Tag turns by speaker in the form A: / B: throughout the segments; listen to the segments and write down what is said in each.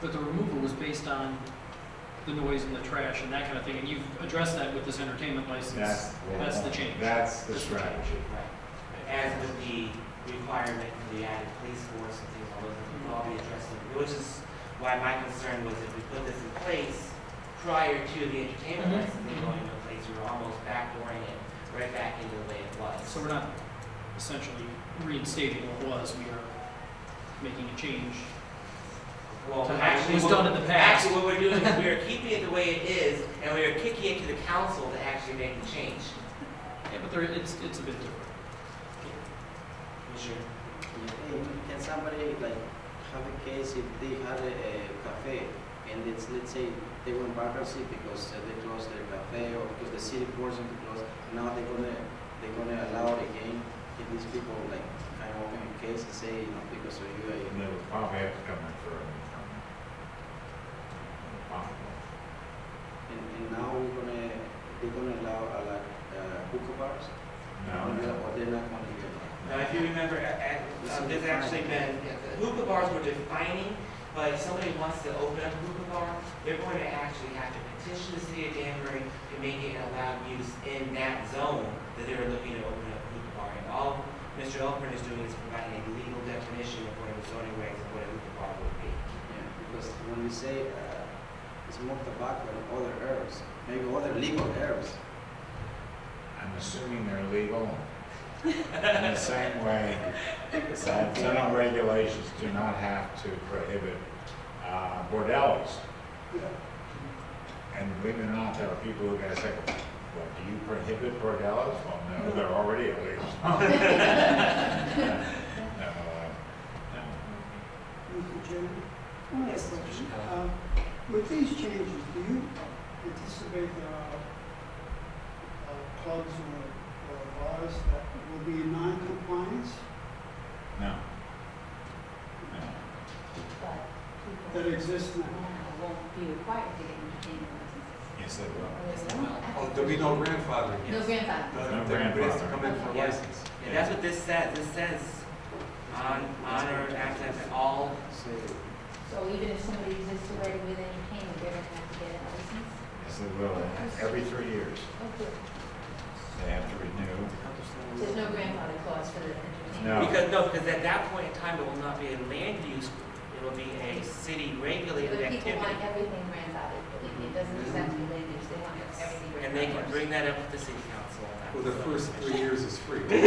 A: but the removal was based on the noise and the trash and that kind of thing, and you've addressed that with this entertainment license.
B: That's, well,
A: That's the change.
B: That's the
A: That's the change.
B: strategy.
C: Right. As with the requirement for the added police force and things, all those, things will all be addressed, in- which is why my concern was if we put this in place prior to the entertainment
A: Mhm.
C: licensing going into place, we were almost backdooring it right back into the way it was.
A: So we're not essentially reinstating what was, we are making a change.
C: Well,
A: So how
C: actually,
A: it was
C: what-
A: done in the past.
C: Actually, what we're doing is we are keeping it the way it is, and we are kicking it to the council to actually make the change.
A: Yeah, but there, it's, it's a bit different.
C: Sure.
D: And Can somebody like have a case if they had a, a cafe and it's, let's say, they went bankruptcy because uh, they closed their cafe or because the city forced them to close, now they're gonna, they're gonna allow it again? Can these people like kind of open a case and say, you know, because of you, I,
B: And they would probably have to come in for an impound. Impound.
D: and, and now we're gonna, they're gonna allow a lot, uh, hookah bars? Or
B: No,
D: they're-
B: no.
D: Or they're not gonna be allowed?
C: Now, Uh, if you remember, a- a- um, there's actually been, hookah bars were defining, but if somebody wants to open up a hookah bar, they're going to actually have to petition the city of Danbury to make it an allowed use in that zone that they were looking to open up a hookah bar. And all Mr. Elkman is doing is providing a legal definition of what a zoning regs of what a hookah bar would be.
D: Yeah, because when we say uh, smoke tobacco and other herbs, maybe other legal herbs,
B: I'm assuming they're legal. In the same way that zoning regulations do not have to prohibit uh, bordellos.
E: Oh,
B: And believe it or not, there are people who are gonna say, well, do you prohibit bordellos? Well, no, they're already illegal. No, uh, no.
F: Mr. Chairman, I want to ask a question. Oh, Uh, With these changes, do you anticipate there are uh, clubs or or bars that will be in non-compliance,
B: No. No.
F: that exist now?
G: Won't be required to get entertainment licenses.
B: Yes, they will.
E: Oh, there'll be no grandfathering.
G: No grandfather.
B: No
E: Everybody has to
B: grandfathering.
E: come in for a
C: Yeah.
E: license.
C: And that's what this says. This says on, honor, access, and all
D: say
G: So even if somebody exists already with entertainment, they're gonna have to get a license?
B: Yes, they will. Every three years, they have to renew.
G: There's no grandfather clause for the
B: No.
E: Oh.
G: entertainment?
C: Because, no, because at that point in time, it will not be a land use, it will be a city regulated
G: But people
C: activity.
G: want everything grandfathered, believe me, it doesn't exactly land use, they want everything grandfathered.
C: And they can bring that up to the city council.
E: Well, the first three years is free.
G: No, but then,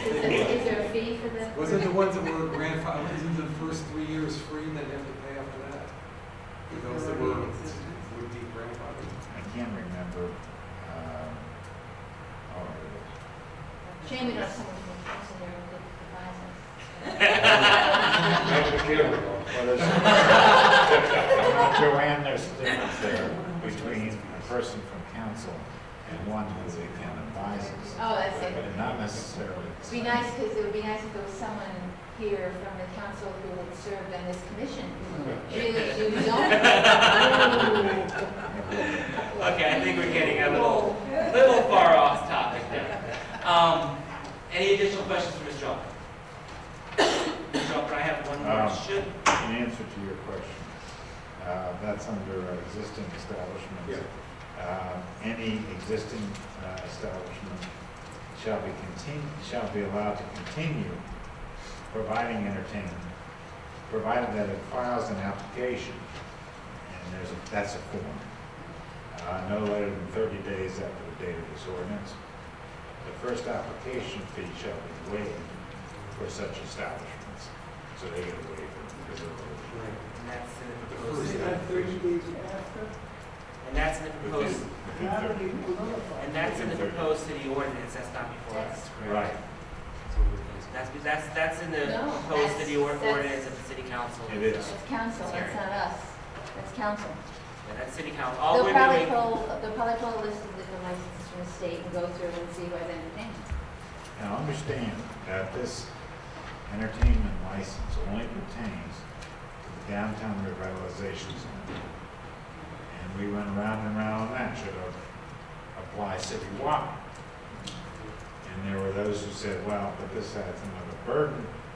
G: is there- is there a fee for the?
E: Wasn't the ones that were grandfathered, isn't the first three years free, then you have to pay after that? For those that were, would be grandfathered.
B: I can't remember, um, oh, it was.
G: Shame we don't have someone from council there who could advise us.
B: Well, there's- Joanne, there's a difference there between a person from council and one who they can advise us.
G: Oh, that's it.
B: But not necessarily. the
G: It'd be
B: same.
G: nice, because it would be nice if there was someone here from the council who had served on this commission. Really, do zoning.
C: Okay, I think we're getting a little, little far off topic there. Um, any additional questions for Ms. Jelka? Ms. Jelka, I have one
B: Um,
C: more. Should,
B: In answer to your question, uh, that's under our existing establishments. Um, Any existing uh, establishment shall be continu, shall be allowed to continue providing entertainment, provided that it files an application, and there's, a that's a form, uh, no later than 30 days after the date of this ordinance. The first application fee shall be waived for such establishments, so they get a waiver because they're open.
C: and that's in the
E: The
C: proposed,
E: first-
F: Is that thirty days after?
C: and that's in the proposed,
B: Within
F: Now that
B: 30
F: we will notify.
C: and that's in the proposed city ordinance, that's not before us, correct?
B: Right,
C: That's, that's, that's in the
G: No,
C: proposed city or-
G: that's- that's-
C: ordinance of the city council.
B: It is.
G: It's council, it's not us. It's council.
C: Yeah, That's city council. All
G: They'll
C: we're
G: probably
C: doing,
G: pull, they'll probably pull a list of different licenses from the state and go through and see who has entertainment.
B: now understand that this entertainment license only pertains to the downtown revitalization zone. And we went round and round on that, should have applied citywide. And there were those who said, well, but this adds another burden